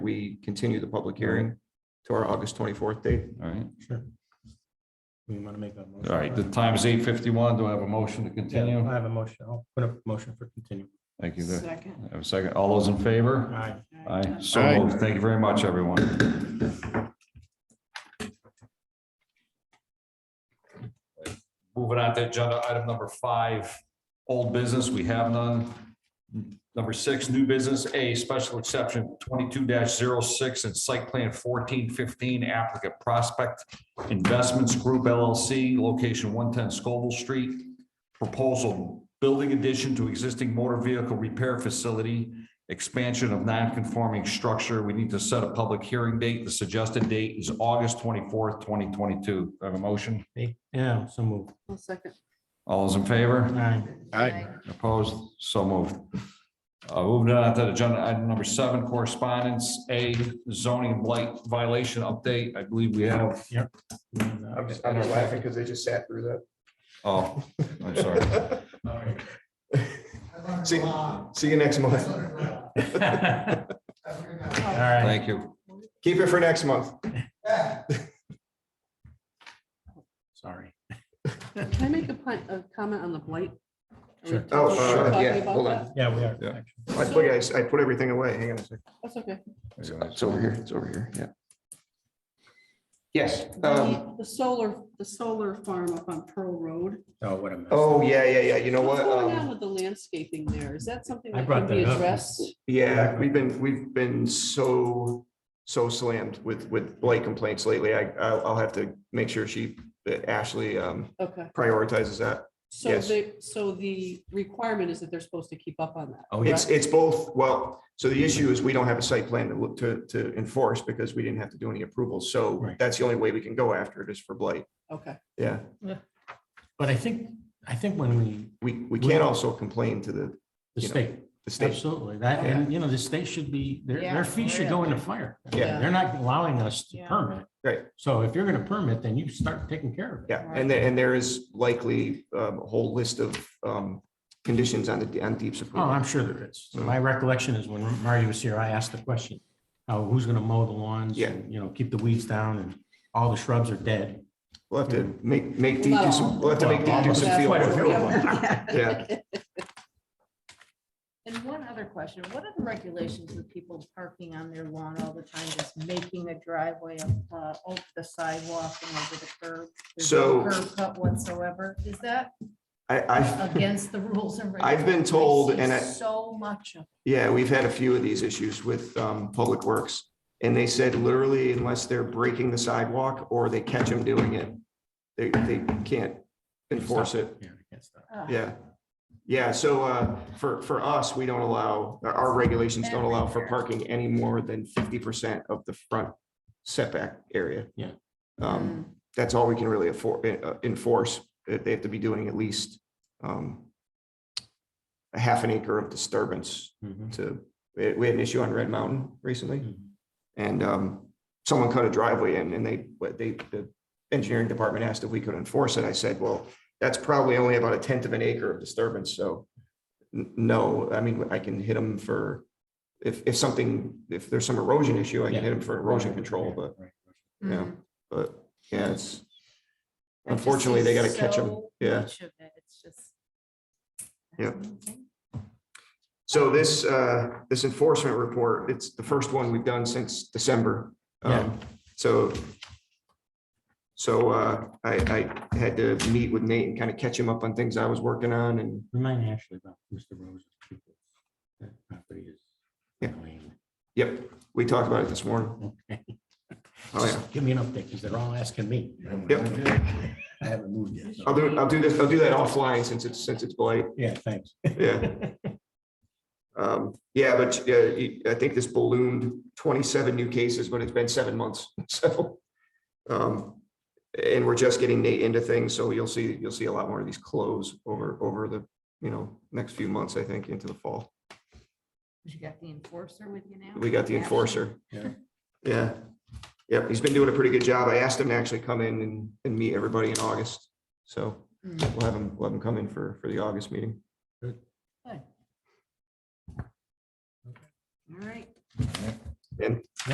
we continue the public hearing to our August twenty-fourth date. All right, Sure. We want to make that. motion. all right, the time is eight fifty-one. Do I have a motion to continue? Yeah, I have a motion. I'll put a motion for continue. Thank you. Do Second. I Have a second. All those in favor? Aye. Aye, so Aye. moved. Thank you very much, everyone. Moving on to agenda item number five, old business, we have none. Number six, new business, A, special exception twenty-two 6 and site plan fourteen fifteen applicant Prospect Investments Group LLC, location one ten Scoville Street. Proposal, building addition to existing motor vehicle repair facility, expansion of non-conforming structure. We need to set a public hearing date. The suggested date is August twenty-fourth, twenty twenty-two. Have a motion? Make- Yeah, Oh, so move. I'll second. All those in favor? Aye. Aye. Opposed? So moved. Uh, Moving on to agenda item number seven, correspondence, A zoning blight violation update. I believe we have, I'm just, I'm just laughing because they just sat through oh, I'm sorry. that. See, see you next month. All right. Thank you. Keep it for next month. Sorry. Can I make a point, a comment on the blight? Are we Sure. Oh, talking uh, yeah, about hold on. that? Yeah, we are. Yeah. I put, I s- I put everything away. Hang on a second. That's okay. It's over here. It's over here. Yeah. Yes. um, The the solar, the solar farm up on Pearl Road. Oh, what a mess. Oh, yeah, yeah, yeah. You know what? What's going on Um, with the landscaping there? Is that something I that brought can be that up. addressed? Yeah, we've been, we've been so, so slammed with, with blight complaints lately. I, I'll I'll have to make sure she, that Ashley um, Okay, prioritizes that. so Yes. they, so the requirement is that they're supposed to keep up on that. Oh, It's, yes. it's both, well, so the issue is we don't have a site plan to, look- to, to enforce because we didn't have to do any approvals. So Right. that's the only way we can go after it is for blight. Oh. Okay, Yeah, But I think, I think when we, we, we can't also complain to the, the You know, state, the state. absolutely, that, and you know, the state should be, their, Yeah, their feet should go in the fire. Yeah. They're not allowing us to Yeah. permit. Right. So if you're gonna permit, then you start taking care of it. Yeah, and there, and there is likely um, a whole list of um, conditions on the, on deep's Oh, approval. I'm sure there is. My recollection is when Marty was here, I asked the question, uh, who's gonna mow the lawns? Yeah. and You know, keep the weeds down and all the shrubs are dead. We'll have to make, make deep do some, we'll have to make deep do some Well, field quite a work. few of them. Yeah, And one other question, what are the regulations with people parking on their lawn all the time, just making a driveway up, uh, over the sidewalk and over the curb? There's So- no Curb cut whatsoever, is that I, I, against the rules and? I've been regulations? I told, see and I- So much of. yeah, we've had a few of these issues with um, Public Works. And they said literally unless they're breaking the sidewalk or they catch them doing it, they, they can't enforce it. Yeah, I guess that. uh, Yeah. Yeah, so uh, for, for us, we don't allow, our- our regulations don't allow for parking any more than fifty percent of the front setback area. Yeah. Um, That's all we can really afford, uh, enforce. They they have to be doing at least um, a half an acre of disturbance Mhm. to, we we had an issue on Red Mountain recently. Mhm. And um, someone cut a driveway in and they, what they, the engineering department asked if we could enforce it. I said, well, that's probably only about a tenth of an acre of disturbance, so. n- No, I mean, I can hit them for, if, if something, if there's some erosion issue, I can hit them for erosion control, but, Right. yeah, mm. but, yeah, it's. I just Unfortunately, they see gotta catch 'em, so yeah. much of it, It's just. Yep. So this, uh, this enforcement report, it's the first one we've done since December. Um, so. So, uh, I, I had to meet with Nate and kind of catch him up on things I was working on and, Remind Ashley about Mr. Rose's people. That property is. Yeah. lame. yep, we talked about it this morning. Okay. Oh, yeah. Just Give me an update, because they're all asking me. Yep. Oh. I haven't moved yet. so- I'll do, I'll do this, I'll do that offline since it's, since it's blight, Yeah, thanks. yeah. Um, yeah, but, uh, you- I think this ballooned twenty-seven new cases, but it's been seven months, so. Um, and we're just getting Nate into things, so you'll see, you'll see a lot more of these close over, over the, you know, next few months, I think, into the fall. You got the enforcer with you now? We got the Yeah. enforcer. Yeah. Yeah, yep, he's been doing a pretty good job. I asked him to actually come in and, and meet everybody in August, so Mm. we'll have him, we'll have him come in for, for the August meeting. All right. And